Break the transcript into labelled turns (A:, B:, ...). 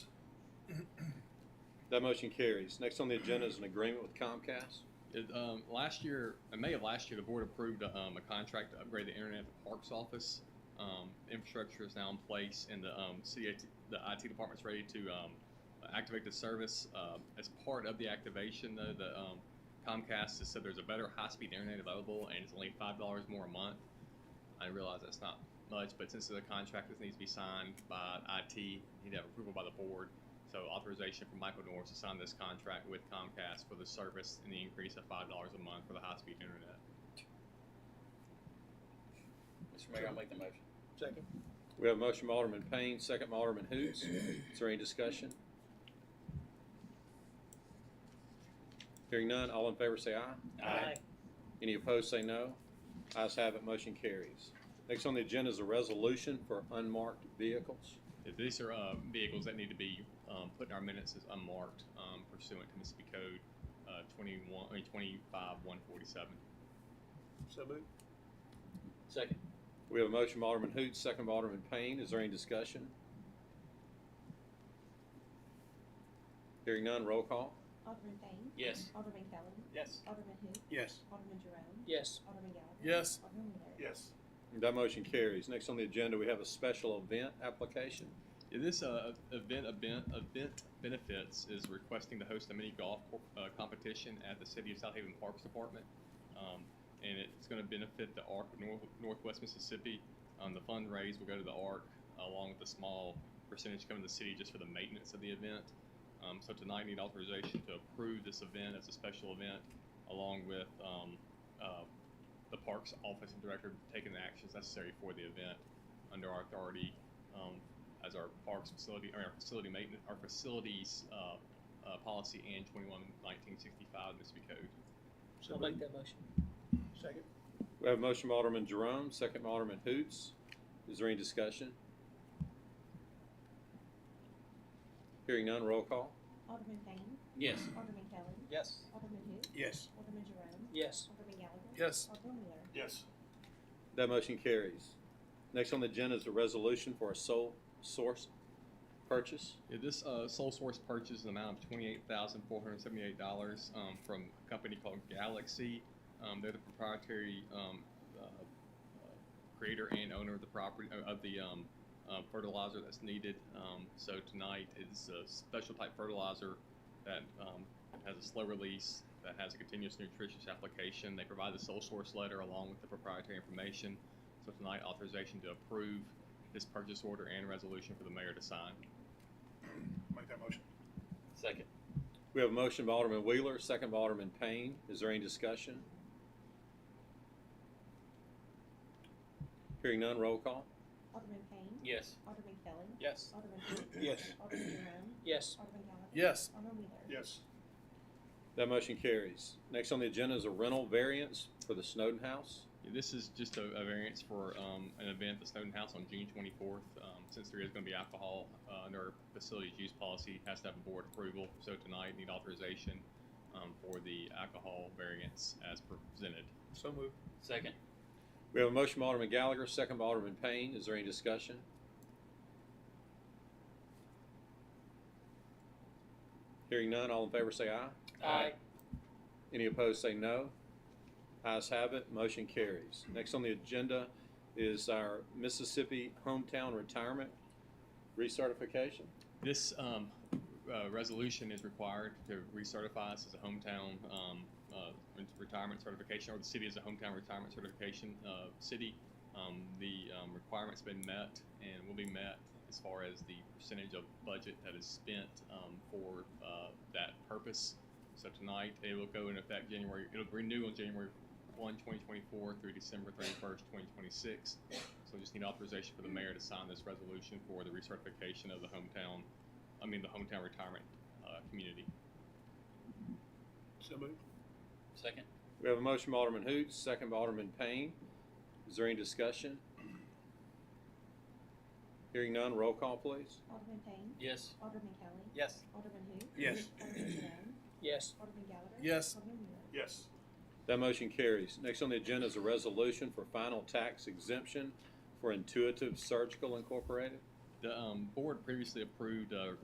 A: That motion carries. Next on the agenda is an agreement with Comcast.
B: It, um, last year, in May of last year, the board approved um, a contract to upgrade the internet at the parks office. Um, infrastructure is now in place, and the um, city, IT the IT department's ready to um, activate the service. Um as part of the activation, though, the um, Comcast has said there's a better high-speed internet available, and it's only five dollars more a month. I realize that's not much, but since the contract this needs to be signed by IT, you need to have approval by the board. So authorization from Michael Norris to sign this contract with Comcast for the service and the increase of five dollars a month for the high-speed internet.
C: Mr. Mayor, I'll make the motion.
D: Second.
A: We have a motion by Alderman Payne, second by Alderman Hoots. Is there any discussion? Hearing none, all in favor say aye.
C: Aye.
A: Any opposed say no. Ayes have it, motion carries. Next on the agenda is a resolution for unmarked vehicles.
B: If These are uh, vehicles that need to be um, put in our minutes as unmarked um, pursuant to Mississippi Code uh, 21, I mean, 25147.
D: So moved.
C: Second.
A: We have a motion by Alderman Hoots, second by Alderman Payne. Is there any discussion? Hearing none, roll call.
E: Alderman Payne.
C: Yes.
E: Alderman Kelly.
C: Yes.
E: Alderman who?
D: Yes.
E: Alderman Jerome.
C: Yes.
E: Alderman Gallagher.
D: Yes.
E: Alderman Wheeler.
D: Yes.
A: That motion carries. Next on the agenda, we have a special event application.
B: Yeah, This uh, event, event, event benefits is requesting to host a mini golf uh, competition at the City of South Haven Parks Department. Um, and it's going to benefit the ARC of North, Northwest Mississippi. Um, the fundraise will go to the ARC along with a small percentage coming to the city just for the maintenance of the event. Um, so tonight, I need authorization to approve this event as a special event along with um, uh, the Parks Office and Director taking the actions necessary for the event under our authority um, as our parks facility, or our facility maintenance, our facilities uh, uh, policy and 21 1965 Mississippi Code.
D: So moved.
C: that motion.
D: Second.
A: We have a motion by Alderman Jerome, second by Alderman Hoots. Is there any discussion? Hearing none, roll call.
E: Alderman Payne.
C: Yes.
E: Alderman Kelly.
C: Yes.
E: Alderman who?
D: Yes.
E: Alderman Jerome.
C: Yes.
E: Alderman Gallagher.
D: Yes.
E: Alderman Wheeler.
D: Yes.
A: That motion carries. Next on the agenda is a resolution for a sole source purchase.
B: Yeah, this uh, sole source purchase is an amount of twenty-eight thousand four hundred seventy-eight dollars um, from a company called Galaxy. Um, they're the proprietary um, uh, uh, creator and owner of the property uh, of the um, uh, fertilizer that's needed. Um, so tonight is a special type fertilizer that um, has a slow release that has a continuous nutritious application. They provide the sole source letter along with the proprietary information. So tonight, authorization to approve this purchase order and resolution for the mayor to sign.
D: Make that motion.
C: Second.
A: We have a motion by Alderman Wheeler, second by Alderman Payne. Is there any discussion? Hearing none, roll call.
E: Alderman Payne.
C: Yes.
E: Alderman Kelly.
C: Yes.
E: Alderman who?
D: Yes.
E: Alderman Jerome.
C: Yes.
E: Alderman Gallagher.
D: Yes.
E: Alderman Wheeler.
D: Yes.
A: That motion carries. Next on the agenda is a rental variance for the Snowden House.
B: Yeah, This is just a, a variance for um, an event at Snowden House on June 24th. Um, since there is going to be alcohol uh, under our facilities use policy, it has to have a board approval. So tonight, need authorization um, for the alcohol variance as presented.
D: So moved.
C: Second.
A: We have a motion by Alderman Gallagher, second by Alderman Payne. Is there any discussion? Hearing none, all in favor say aye.
C: Aye.
A: Any opposed say no. Ayes have it, motion carries. Next on the agenda is our Mississippi Hometown Retirement Recertification.
B: This um, uh, resolution is required to recertify us as a hometown um, uh, retirement certification, or the city as a hometown retirement certification uh, city. Um, the um, requirement's been met and will be met as far as the percentage of budget that is spent um, for uh, that purpose. So tonight, it will go in effect January, it'll renew on January 1, 2024 through December 31st, 2026. So just need authorization for the mayor to sign this resolution for the recertification of the hometown, I mean, the hometown retirement uh, community.
D: So moved.
C: Second.
A: We have a motion by Alderman Hoots, second by Alderman Payne. Is there any discussion? Hearing none, roll call please.
E: Alderman Payne.
C: Yes.
E: Alderman Kelly.
C: Yes.
E: Alderman who?
D: Yes.
E: Alderman Jerome.
C: Yes.
E: Alderman Gallagher.
D: Yes.
E: Alderman Wheeler.
D: Yes.
A: That motion carries. Next on the agenda is a resolution for final tax exemption for Intuitive Surgical Incorporated.
B: The um, board previously approved uh,